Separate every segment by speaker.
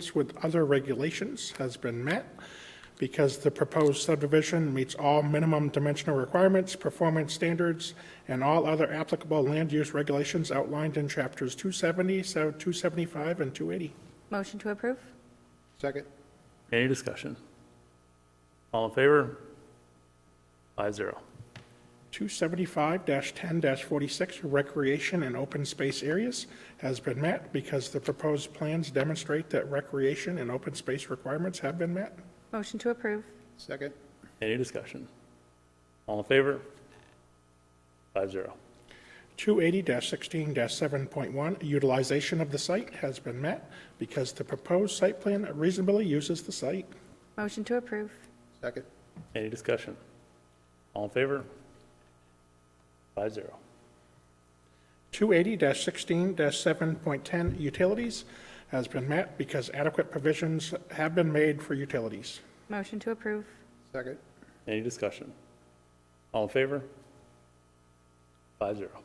Speaker 1: compliance with other regulations has been met because the proposed subdivision meets all minimum dimensional requirements, performance standards, and all other applicable land use regulations outlined in chapters 270, so 275, and 280.
Speaker 2: Motion to approve?
Speaker 3: Second.
Speaker 4: Any discussion? All in favor? Five zero.
Speaker 1: 275-10-46 Recreation and Open Space Areas has been met because the proposed plans demonstrate that recreation and open space requirements have been met.
Speaker 2: Motion to approve?
Speaker 3: Second.
Speaker 4: Any discussion? All in favor? Five zero.
Speaker 1: 280-16-7.1, utilization of the site has been met because the proposed site plan reasonably uses the site.
Speaker 2: Motion to approve?
Speaker 3: Second.
Speaker 4: Any discussion? All in favor? Five zero.
Speaker 1: 280-16-7.10, utilities has been met because adequate provisions have been made for utilities.
Speaker 2: Motion to approve?
Speaker 3: Second.
Speaker 4: Any discussion? All in favor? Five zero.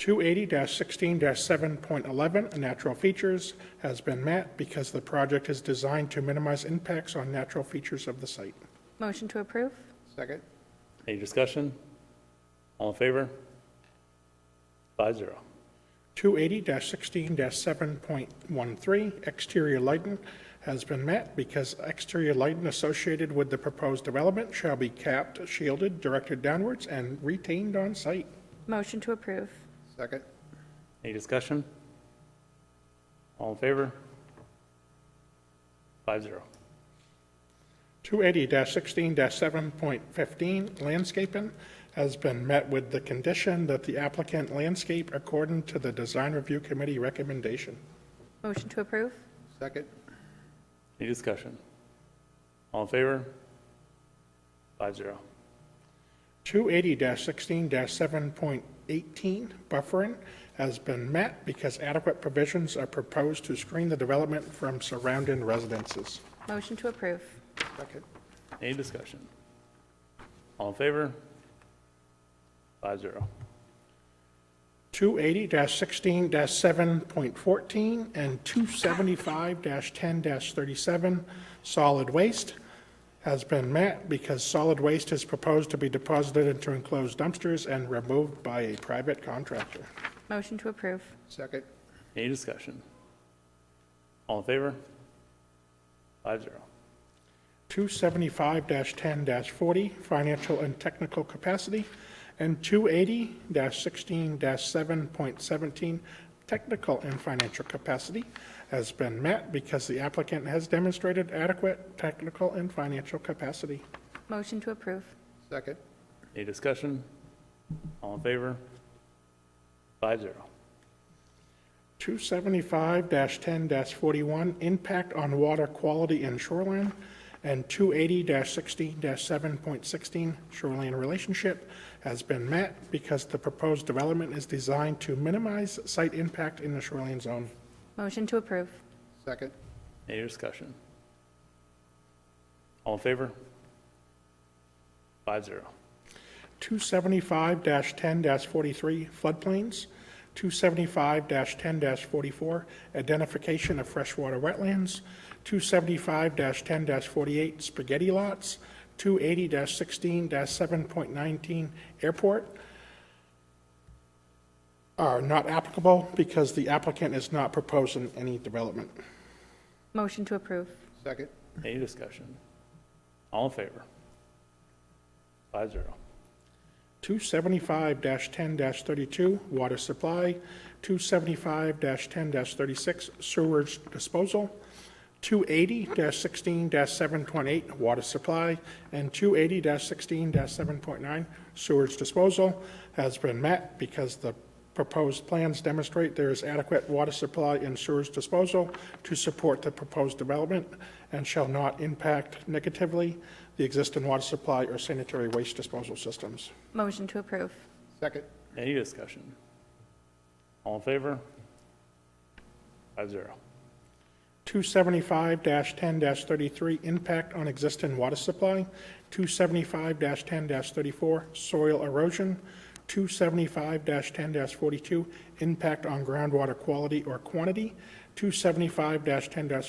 Speaker 1: 280-16-7.11, natural features has been met because the project is designed to minimize impacts on natural features of the site.
Speaker 2: Motion to approve?
Speaker 3: Second.
Speaker 4: Any discussion? All in favor? Five zero.
Speaker 1: 280-16-7.13, exterior lighting has been met because exterior lighting associated with the proposed development shall be capped, shielded, directed downwards, and retained on site.
Speaker 2: Motion to approve?
Speaker 3: Second.
Speaker 4: Any discussion? All in favor? Five zero.
Speaker 1: 280-16-7.15, landscaping has been met with the condition that the applicant landscape according to the Design Review Committee recommendation.
Speaker 2: Motion to approve?
Speaker 3: Second.
Speaker 4: Any discussion? All in favor? Five zero.
Speaker 1: 280-16-7.18 buffering has been met because adequate provisions are proposed to screen the development from surrounding residences.
Speaker 2: Motion to approve?
Speaker 3: Second.
Speaker 4: Any discussion? All in favor? Five zero.
Speaker 1: 280-16-7.14 and 275-10-37 solid waste has been met because solid waste is proposed to be deposited into enclosed dumpsters and removed by a private contractor.
Speaker 2: Motion to approve?
Speaker 3: Second.
Speaker 4: Any discussion? All in favor? Five zero.
Speaker 1: 275-10-40, financial and technical capacity, and 280-16-7.17, technical and financial capacity, has been met because the applicant has demonstrated adequate technical and financial capacity.
Speaker 2: Motion to approve?
Speaker 3: Second.
Speaker 4: Any discussion? All in favor? Five zero.
Speaker 1: 275-10-41, impact on water quality and shoreline, and 280-16-7.16, shoreline relationship, has been met because the proposed development is designed to minimize site impact in the shoreline zone.
Speaker 2: Motion to approve?
Speaker 3: Second.
Speaker 4: Any discussion? All in favor? Five zero.
Speaker 1: 275-10-43, floodplains, 275-10-44, identification of freshwater wetlands, 275-10-48, spaghetti lots, 280-16-7.19, airport, are not applicable because the applicant is not proposing any development.
Speaker 2: Motion to approve?
Speaker 3: Second.
Speaker 4: Any discussion? All in favor? Five zero.
Speaker 1: 275-10-32, water supply, 275-10-36, sewage disposal, 280-16-728, water supply, and 280-16-7.9, sewage disposal, has been met because the proposed plans demonstrate there is adequate water supply and sewage disposal to support the proposed development and shall not impact negatively the existing water supply or sanitary waste disposal systems.
Speaker 2: Motion to approve?
Speaker 3: Second.
Speaker 4: Any discussion? All in favor? Five zero.
Speaker 1: 275-10-33, impact on existing water supply, 275-10-34, soil erosion, 275-10-42, impact on groundwater quality or quantity, 275-10-43,